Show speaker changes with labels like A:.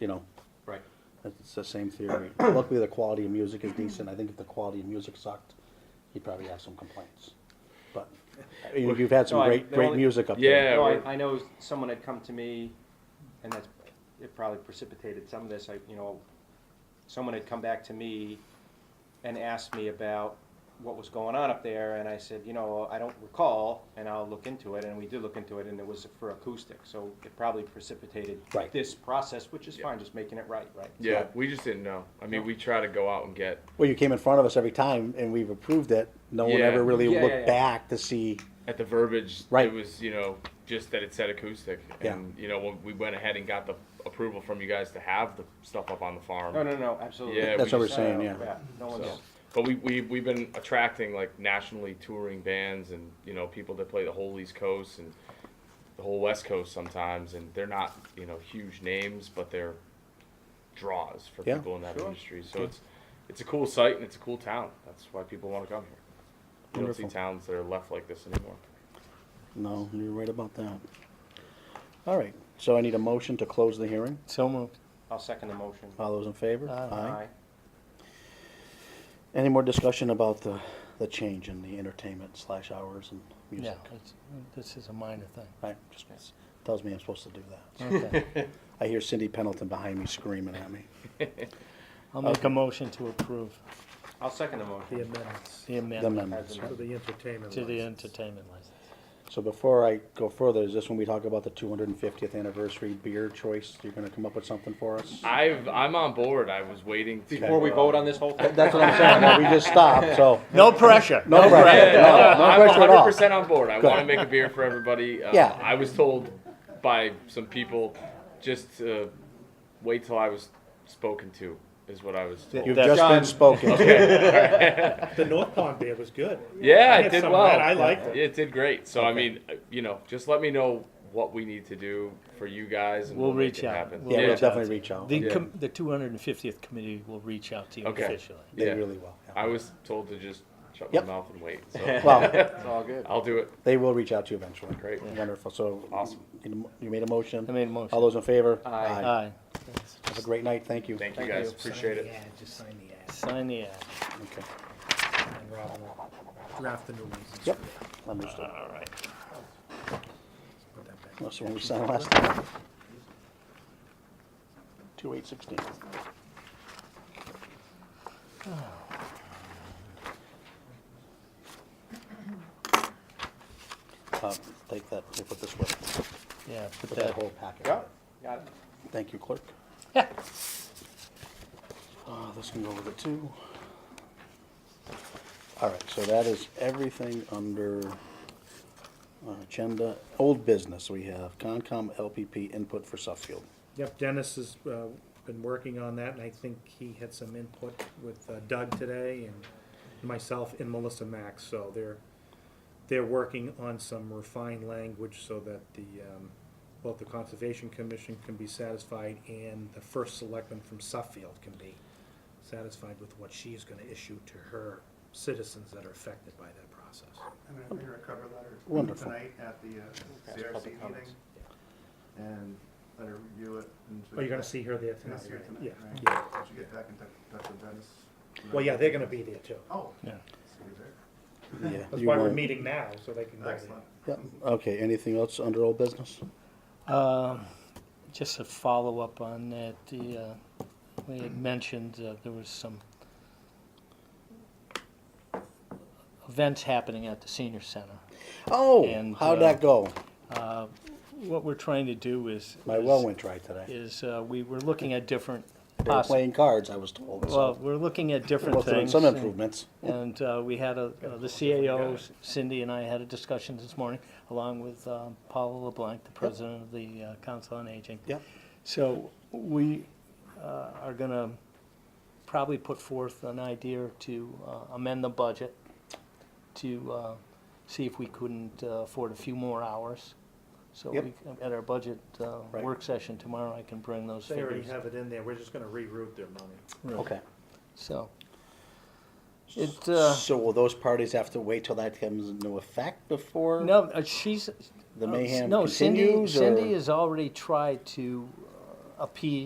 A: you know,
B: Right.
A: it's the same theory. Luckily, the quality of music is decent. I think if the quality of music sucked, you'd probably have some complaints. But, I mean, you've had some
B: No, I-
A: great,
B: the
A: great
B: only-
A: music up
C: Yeah,
A: there.
B: No,
C: right.
B: I, I know someone had come to me, and that's, it probably precipitated some of this, I, you know, someone had come back to me and asked me about what was going on up there, and I said, you know, I don't recall, and I'll look into it, and we did look into it, and it was for acoustic, so it probably precipitated
A: Right.
B: this process, which is
C: Yeah.
B: fine, just making it right, right?
C: Yeah, we just didn't know. I mean, we try to go out and get.
A: Well, you came in front of us every time and we've approved it. No one
C: Yeah.
A: ever really
B: Yeah, yeah,
A: looked
B: yeah.
A: back to see,
C: at the verbiage,
A: Right.
C: it was, you know, just that it said acoustic.
A: Yeah.
C: And, you know, when we went ahead and got the approval from you guys to have the stuff up on the farm.
B: Oh, No, no, no, absolutely.
C: Yeah,
A: That's we what we're
B: No,
A: saying,
B: no,
A: yeah.
B: No one's,
C: So, but we, we, we've been attracting like nationally touring bands and, you know, people that play the whole East Coast and the whole West Coast sometimes. And they're not, you know, huge names, but they're draws for
A: Yeah.
C: people in that
B: Sure.
C: industry. So it's, it's a cool site and it's a cool town. That's why people want to come here. You
A: Wonderful.
C: don't see towns that are left like this anymore.
A: no, you're right about that. All right, so I need a motion to close the hearing.
D: So moved.
B: I'll second the motion.
A: All those in favor?
D: Aye.
B: Aye.
A: Any more discussion about the, the change in the entertainment slash hours and
D: Yeah,
A: music?
D: it's- this is a minor thing.
A: All right, just tells me I'm supposed to do that.
D: Okay.
A: I hear Cindy Pendleton behind me screaming at me.
D: I'll make a motion to approve
B: I'll second the motion.
E: The amendments
D: the
A: The
D: amendment
A: amendments.
E: to the entertainment
D: to the
E: license.
D: entertainment license.
A: So before I go further, is this when we talk about the two hundred and fiftieth anniversary beer choice? You're gonna come up with something for us?
C: I've, I'm on board. I was waiting to,
B: Before we
C: uh,
B: vote on this whole thing?
A: That's what I'm saying, no, we just stopped, so,
D: No pressure.
A: no pressure,
C: Yeah,
A: no, no
C: I'm
A: pressure at
C: 100
A: all.
C: percent on board. I
A: Good.
C: want to make a beer for everybody. Uh,
A: Yeah.
C: I was told by some people just uh, wait till I was spoken to is what I was told.
A: You've
D: That's
A: just
D: done.
A: been spoken.
E: The North Pond beer was good.
C: yeah,
E: I
C: it
E: had
C: did
E: some of
C: well.
E: that. I liked it.
C: It did great. So I mean, uh, you know, just let me know what we need to do for you guys, and
D: We'll
C: we'll, make
D: reach
C: it
D: out.
C: happen.
D: We'll
A: Yeah, we'll
D: reach out.
A: definitely reach out.
D: The
C: Yeah.
D: com- the two hundred and fiftieth committee will reach out to you
C: Okay.
D: officially.
A: They
C: yeah.
A: really will. yeah.
C: I was told to just shut
A: Yep.
C: my mouth and wait. So
A: Well,
B: It's all good.
C: I'll do it.
A: they will reach out to you eventually.
C: Great.
A: Wonderful, so.
C: Awesome.
A: you- You made a motion?
D: I made a
A: All
D: motion.
A: those in favor?
B: Aye.
D: Aye.
A: Have a great night, thank you.
C: Thank,
B: Thank
C: you guys.
B: you.
C: Appreciate it.
E: Yeah, just sign the ad,
D: Sign the ad.
A: Okay.
E: and Rob will draft the new license.
A: Yep, understood.
D: All right.
E: Put that back.
A: That's the one we signed last time. Two eight sixteen. Uh, Um, take that, you put this way,
D: Yeah,
A: put
D: put
A: that
D: that.
A: whole packet.
B: Yeah, got it.
A: Thank you, clerk.
D: Yeah.
A: Uh, this can go with it too. All right, so that is everything under our agenda. Old business, we have Concom LPP input for Suffield.
E: Yep, Dennis has uh, been working on that, and I think he had some input with uh, Doug today, and myself and Melissa Max, so they're, they're working on some refined language so that the, um, both the Conservation Commission can be satisfied and the first selectman from Suffield can be satisfied with what she's gonna issue to her citizens that are affected by that process.
F: I'm gonna prepare a cover letter
A: Wonderful.
F: tonight at the uh,
B: That's
F: CRC
B: public
F: meeting.
B: comments.
F: And let her review it. and so-
E: Oh, you're gonna see her there
F: Gonna
E: tonight,
F: see her
E: right?
F: tonight,
E: Yeah,
F: right?
E: yeah.
F: Did you get back in touch touch with Dennis?
E: Well, yeah, they're gonna be there too.
F: Oh.
D: Yeah.
F: so you're there.
A: Yeah,
E: That's
A: you
E: why we're
A: want-
E: meeting now, so they can go there.
F: Excellent.
A: yeah, Okay, anything else under old business?
D: Um, Just a follow-up on that, the, uh, we had mentioned uh, there was some events happening at the senior center.
A: Oh,
D: And,
A: how'd
D: uh,
A: that go?
D: Uh, What we're trying to do is.
A: My well went dry today.
D: Is, uh, we were looking at different,
A: They were
D: possi-
A: playing cards, I was told,
D: well,
A: so.
D: we're looking at different
A: Well,
D: things.
A: Some
D: and-
A: improvements.
D: And uh, we had a, uh, the CAOs, Cindy and I had a discussion this morning, along with um, Paula LeBlanc, the president of the uh, Council on Aging.
A: Yep.
D: So we uh, are going to probably put forth an idea to uh, amend the budget to uh, see if we couldn't uh, afford a few more hours. So
A: Yep.
D: we, at our budget uh,
A: Right.
D: work session tomorrow, I can bring those
E: They already
D: figures.
E: have it in there, we're just gonna reroute their money.
D: Right.
A: Okay.
D: So it, uh,
A: So will those parties have to wait till that comes into effect before?
D: no, uh, she's,
A: The
D: Uh,
A: mayhem
D: No, Cindy,
A: continues, or?
D: Cindy has already tried to uh, appease